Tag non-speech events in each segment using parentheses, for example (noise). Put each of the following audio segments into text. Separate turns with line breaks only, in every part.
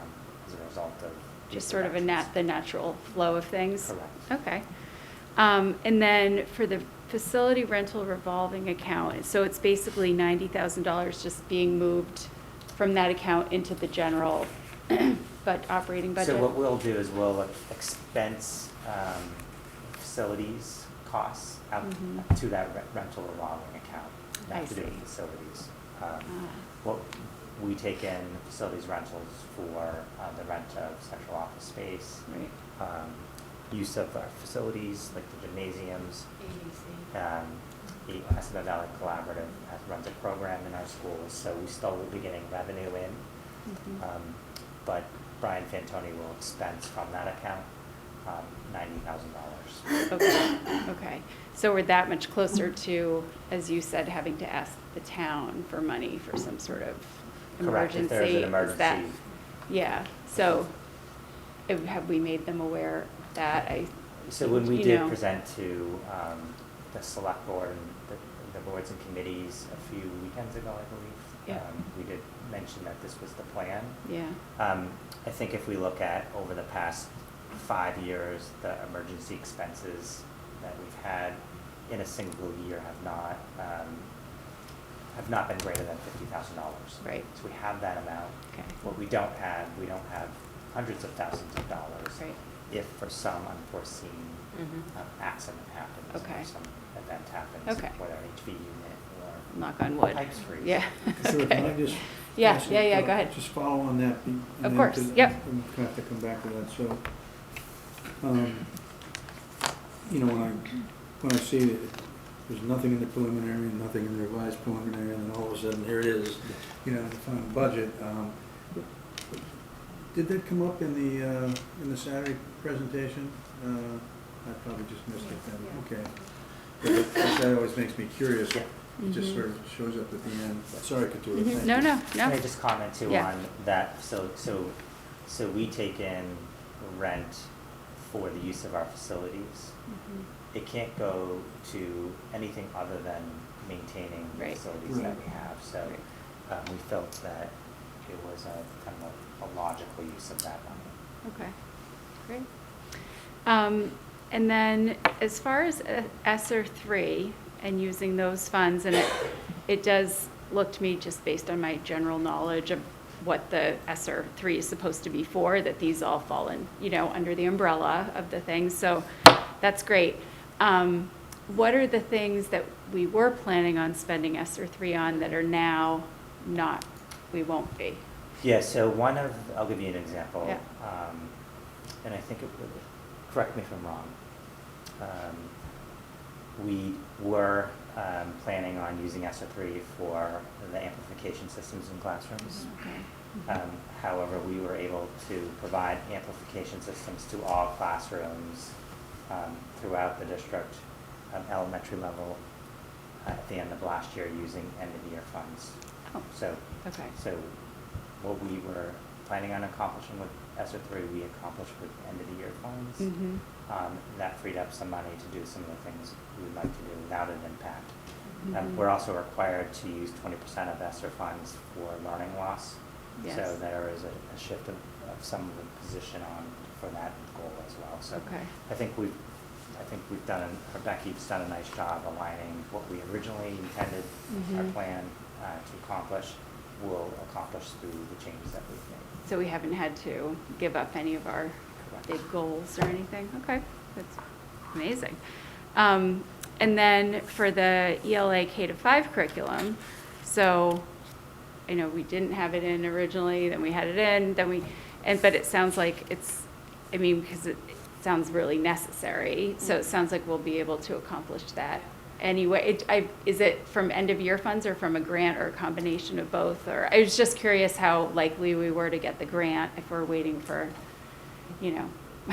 um, result of.
Just sort of a nat,
nat.
the natural flow of things?
Correct.
Okay. Um, and then for the facility rental revolving account, so it's basically ninety thousand dollars just being moved from that account into the general, (clears throat) but operating budget?
So what we'll do is we'll expense um, facilities costs out
Mhm.
to that re- rental revolving account.
I
Not to do with
see.
facilities. Um,
Ah.
What, we take in facilities rentals for uh, the rent of central office space,
Right,
um, use of our facilities, like the gymnasiums. Um, The Essex Valley Collaborative has- runs a program in our schools, so we still will be getting revenue in.
Mhm.
Um, But Brian Fantoni will expense from that account um, $90,000.
okay, okay. So we're that much closer to, as you said, having to ask the town for money for some sort of
Correct,
emergency?
if there's an
Is that-
emergency.
Yeah, so uh, have we made them aware of that? I,
So when we
you
did
know.
present to um, the select board and the- the boards and committees a few weekends ago, I believe.
Yeah.
um, We did mention that this was the plan.
yeah,
Um, I think if we look at over the past five years, the emergency expenses that we've had in a single year have not, um, have not been greater than fifty thousand dollars.
Right.
So we have that amount.
Okay.
What we don't have, we don't have hundreds of thousands of dollars.
Right. Mm-hmm.
If for some unforeseen
Mhm.
um, accident happens.
Okay.
Or some event happens.
Okay.
Whether an HV unit or.
knock on wood.
Pipes freeze.
Yeah,
So
Sure, can
(laughs)
I
okay.
just?
Yeah,
ask a-
yeah, yeah,
uh,
go ahead.
Just follow on that. be- and
Of
then
course,
to-
yep.
I'm gonna have to come back to that, so, um, you know, when I, when I see it, there's nothing in the preliminary, and nothing in the revised preliminary, and then all of a sudden, here it is, you know, the final budget. um, Did that come up in the, uh, in the Saturday presentation? Uh, I probably just missed it then, okay. But that- That always makes me curious.
Yeah.
It just
Mhm.
sort of shows up at the end. Sorry, Katura.
Mhm.
thank
No,
you.
no,
Can I
no,
just comment too
Yeah.
on that? So, so, so we take in rent for the use of our facilities.
Mhm.
It can't go to anything other than maintaining the
Right.
facilities that
Right.
we have. So um, we felt that it was a kind of a logical use of that money.
okay, great. Um, and then as far as uh, ESSER three and using those funds, and it, it does look to me, just based on my general knowledge of what the ESSER three is supposed to be for, that these all fall in, you know, under the umbrella of the thing, so that's great. Um, what are the things that we were planning on spending ESSER three on that are now not, we won't be?
Yeah, so one of, I'll give you an example.
Yeah.
Um, And I think it would, correct me if I'm wrong. Um, We were um, planning on using ESER three for the amplification systems in classrooms.
Okay.
Um, However, we were able to provide amplification systems to all classrooms um, throughout the district, um, elementary level, uh, at the end of last year, using end-of-year funds.
Oh,
So
Okay.
so what we were planning on accomplishing with ESER three, we accomplished with end of the year funds.
Mhm.
Um, that freed up some money to do some of the things we would like to do without an impact.
Mhm.
Um, we're also required to use twenty percent of ESER funds for learning loss. So
Yes.
there is a, a shift of, of some of the position on for that goal as well. So
Okay.
I think we've, I think we've done, or Becky's done a nice job aligning what we originally intended, our
Mhm.
plan uh, to accomplish, will accomplish through the changes that we've made.
So we haven't had to give up any of our
Correct.
big goals or anything? Okay, that's amazing. Um, And then for the ELA K to five curriculum, so I know we didn't have it in originally, then we had it in, then we, and, but it sounds like it's, I mean, because it it sounds really necessary, so it sounds like we'll be able to accomplish that anyway. It- I- Is it from end-of-year funds or from a grant or a combination of both? Or, I was just curious how likely we were to get the grant if we're waiting for, you know, (laughs)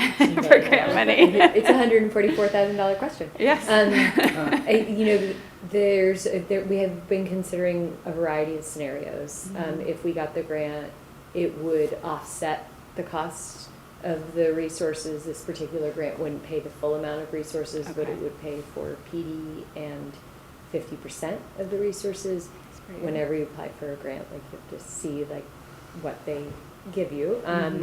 for grant money.
(laughs) It's a
(laughs)
hundred and forty-four thousand dollar question.
Yes. (laughs)
Um, I, you know, there's, uh, there, we have been considering a variety of scenarios. Um,
Mhm.
if we got the grant, it would offset the cost of the resources. This particular grant wouldn't pay the full amount of resources, but
Okay.
it would pay for PD and fifty percent of the resources.
That's pretty good. Mm-hmm.
Whenever you apply for a grant, like you have to see like what they give you. Um,